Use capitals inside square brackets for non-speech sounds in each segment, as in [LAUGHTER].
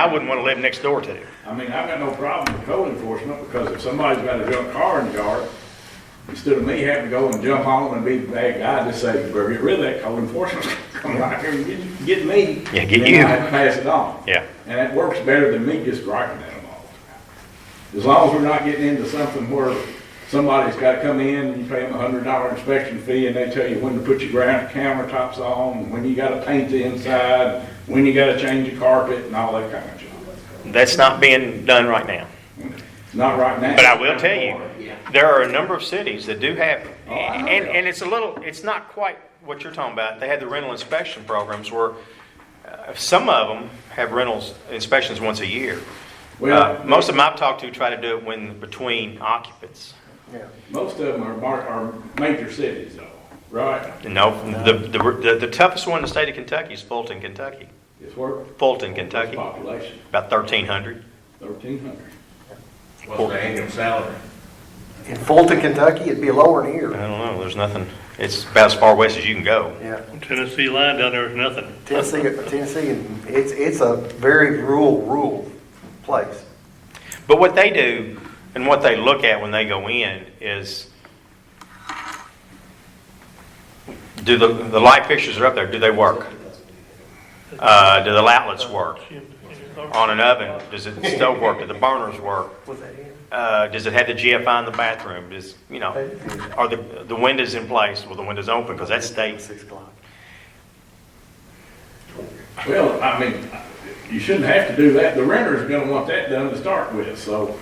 I wouldn't want to live next door to him. I mean, I've got no problem with code enforcement, because if somebody's got a junk car in the yard, instead of me having to go and jump on 'em and be the bad guy, just say, "Well, get rid of that code enforcement, [LAUGHS] come right here and get, you- get me. Yeah, get And you. I have to pass it on. Yeah. And that works better than me just griping at them all the time. As long as we're not getting into something where somebody's gotta come in, and you pay them a hundred dollar inspection fee, and they tell you when to put your ground countertops on, when you gotta paint the inside, when you gotta change the carpet, and all that kind of junk. That's not being done right now. Not right now. But I will tell you, there are a number of cities that do have, and, and it's a little, it's not quite what you're talking about. They had the rental inspection programs where uh, some of them have rentals inspections once a year. Uh, Well, Most of them I've talked to try to do it when, between occupants. most of them are, mar- are major cities though, right? No, the, the, the toughest one in the state of Kentucky is Fulton, Kentucky. It's where? Fulton, Kentucky, Population, about thirteen hundred. thirteen hundred. What's the annual salary? In Fulton, Kentucky, it'd be lower than I here. don't know, there's nothing, it's about as far west as you can go. Yeah, Tennessee line down there is nothing. Tennessee, Tennessee, and it's, it's a very rural, rural place. But what they do and what they look at when they go in is do the, the light fixtures are up there, do they work? Uh, do the outlets work? On an oven, does it still work? Do the burners work? Uh, does it have the GFI in the bathroom? Does, you know, are the, the windows in place? Well, the windows open because that's state. Six o'clock. Well, I mean, you shouldn't have to do that. The renter's gonna want that done to start with, so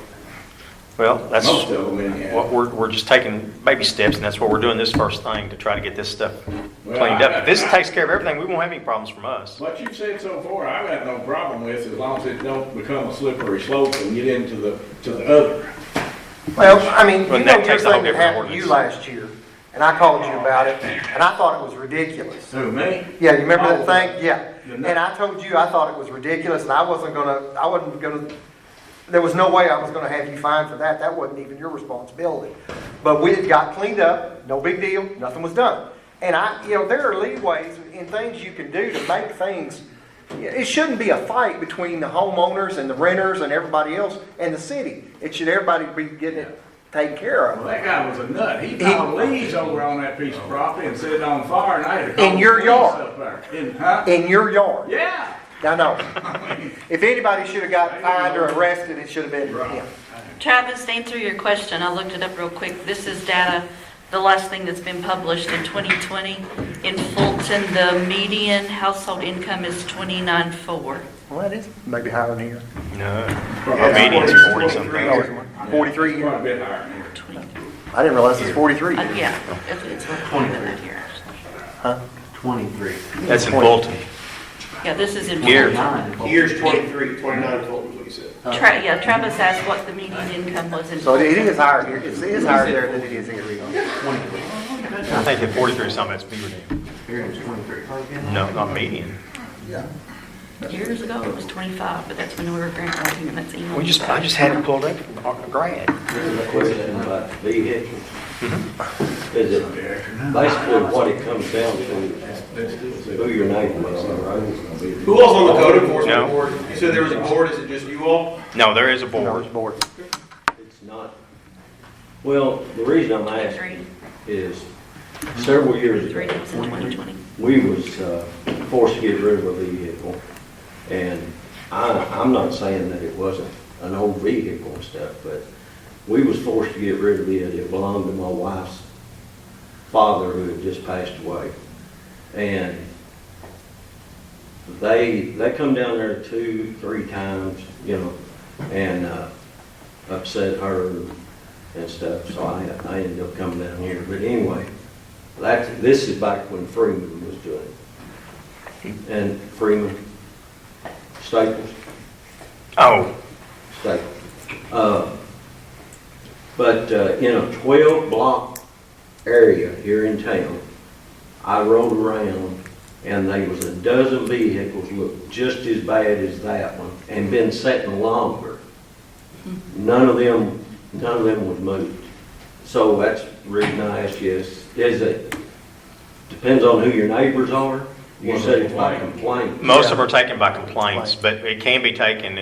Well, that's. most of them anyhow. What we're, we're just taking baby steps, and that's what we're doing this first thing to try to get this stuff cleaned up. If this takes care of everything, we won't have any problems from us. What you've said so far, I've got no problem with, as long as it don't become a slippery slope and get into the, to the other. Well, I mean, Well, you know, that your takes a whole thing that different happened to you ordinance. last year, and I called you about it, and I thought it was ridiculous. Who, me? Yeah, you remember Oh. that thing? Yeah. The And nut- I told you I thought it was ridiculous, and I wasn't gonna, I wasn't gonna, there was no way I was gonna have you fined for that. That wasn't even your responsibility. But we, it got cleaned up, no big deal, nothing was done. And I, you know, there are leeways and things you can do to make things, it shouldn't be a fight between the homeowners and the renters and everybody else and the city. It should, everybody be getting it taken care Well, of. that guy was a nut. He piled leaves over on that piece of property and set it on fire, and I had to call. In your the police yard. up there. In, huh? In your yard. Yeah. I know. If anybody should have got fined or arrested, it should have been Right. him. Travis, to answer your question, I looked it up real quick. This is data, the last thing that's been published in 2020. In Fulton, the median household income is 29.4. Well, it is maybe higher than here. No. Our median's 40 something. Forty-three. Quite a bit higher than here. 23. I didn't realize it's forty-three. Uh, Yeah, it's- it's recorded in here. Twenty-three. That's in Fulton. Yeah, this is in. Here. Year's twenty-three, twenty-nine is what you said. Tra- Yeah, Travis asked what the median income was in. So it Fulton. it is higher here, it's- it is higher there than it is here. I think the forty-three is something that's Beaver Dam. Year's twenty-three. No, not median. Years ago, it was 25, but that's when we were grant writing, and that's. email. We just, I just had it pulled up from our grad. Here's a question about vehicles. Is it basically what it comes down to, who your neighbor is, right? Who else on the code enforcement No. board? You said there was a board, is it just you all? No, there is a board. Board. It's not, well, the reason I'm Three. asking is several years Three ago, times in 2020. we was uh, forced to get rid of a vehicle. And I, I'm not saying that it wasn't an old vehicle and stuff, but we was forced to get rid of it. It belonged to my wife's father who had just passed away. And they, they come down there two, three times, you know, and uh, upset her and stuff. So I, I ended up coming down here. But anyway, that, this is back when Freeman was doing it. And Freeman, Staples, Oh, Staples. Uh, But uh, in a 12-block area here in town, I rode around and there was a dozen vehicles looked just as bad as that one and been sitting longer. None of them, none of them was moved. So that's the reason I asked you, is is it, depends on who your neighbors are? You said it's by complaint. Most of them are taken by complaints, but it can be taken